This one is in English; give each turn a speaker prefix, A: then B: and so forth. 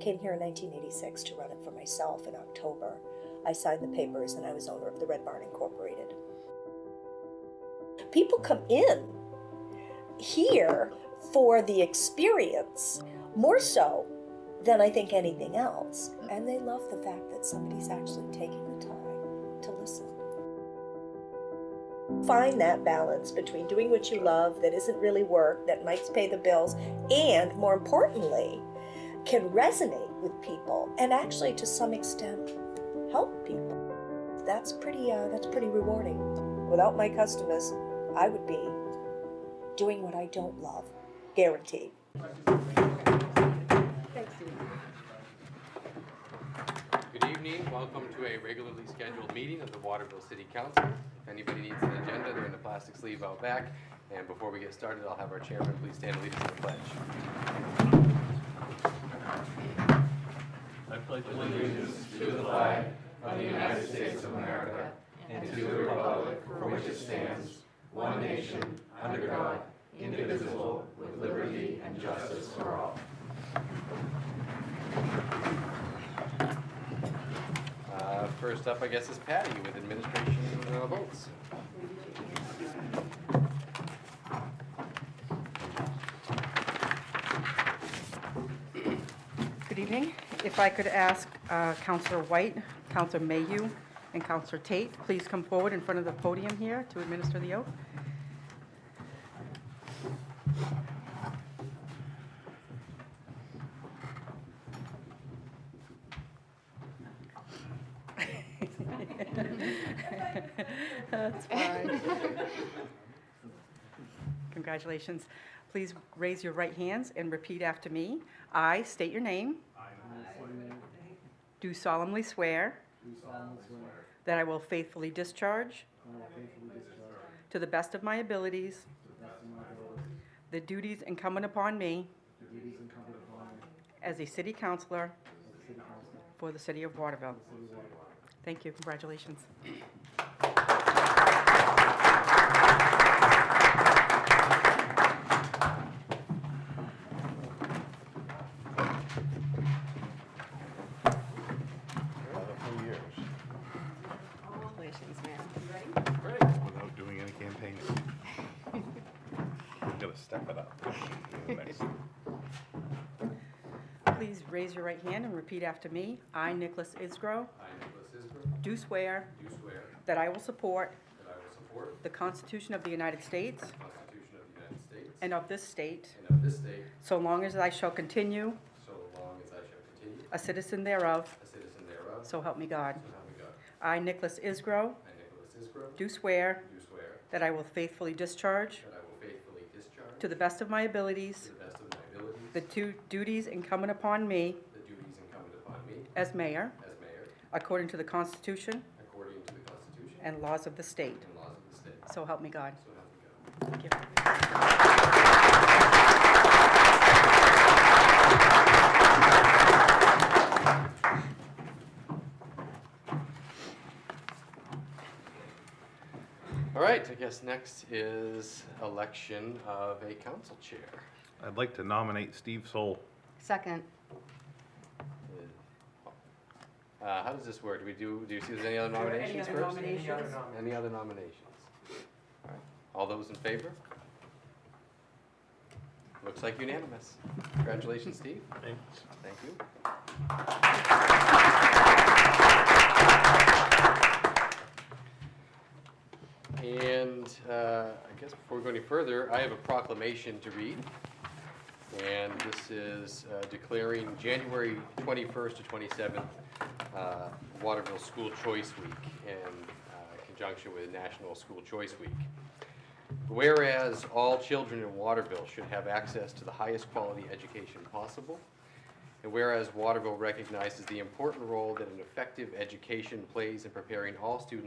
A: came here in 1986 to run it for myself in October. I signed the papers and I was owner of the Red Barn Incorporated. People come in here for the experience more so than I think anything else. And they love the fact that somebody's actually taking the time to listen. Find that balance between doing what you love that isn't really work, that might pay the bills, and more importantly, can resonate with people and actually to some extent help people. That's pretty uh, that's pretty rewarding. Without my customers, I would be doing what I don't love, guaranteed.
B: Good evening, welcome to a regularly scheduled meeting of the Waterville City Council. If anybody needs an agenda, they're in the plastic sleeve out back. And before we get started, I'll have our chairman please stand and lead us in the pledge. Uh, First up, I guess, is Patty with administration uh, votes.
C: Good evening. If I could ask uh, Counselor White, Counselor Mayhew, and Counselor Tate, please come forward in front of the podium here to administer the oath. That's fine. Congratulations. Please raise your right hands and repeat after me. I state your name. Do solemnly swear
D: Do solemnly swear
C: that I will faithfully discharge,
D: that I will faithfully discharge to
C: to the best of my abilities,
D: the best of my ability
C: the duties incumbent upon me
D: the duties incumbent upon me
C: as a city councillor
D: as a city council of
C: for the city of Waterville.
D: the city of Waterville.
C: Thank you. Congratulations. Congratulations, ma'am.
E: without doing any campaigning. Gotta step it up. Nice.
C: Please raise your right hand and repeat after me. I, Nicholas Isgro,
B: I, Nicholas Isbro,
C: do swear
B: do swear
C: that I will support
B: that I will support
C: the Constitution of the United States
B: the Constitution of the United States
C: and of this state,
B: and of this state,
C: so long as I shall continue
B: so long as I shall continue
C: a citizen thereof,
B: a citizen thereof,
C: so help me God.
B: so help me God.
C: I, Nicholas Isgro,
B: I, Nicholas Isbro,
C: do swear
B: do swear
C: that I will faithfully discharge,
B: that I will faithfully discharge
C: to the best of my abilities,
B: to the best of my abilities
C: the two duties incumbent upon me
B: the duties incumbent upon me
C: as mayor,
B: as mayor,
C: according to the Constitution
B: according to the Constitution
C: and laws of the state.
B: and laws of the state,
C: So help me God.
B: so help me God.
C: Thank you.
B: All right, I guess next is election of a council chair.
E: I'd like to nominate Steve Soul.
F: Second.
B: Uh, how does this work? Do we do, do you see there's any other nominations first? Any other nominations? All right. All those in favor? Looks like unanimous. Congratulations, Steve. Thanks. Thank you. And uh, I guess before we go any further, I have a proclamation to read. And this is uh, declaring January 21st to 27th uh, Waterville School Choice Week in uh, conjunction with National School Choice Week. Whereas all children in Waterville should have access to the highest quality education possible, and whereas Waterville recognizes the important role that an effective education plays in preparing all students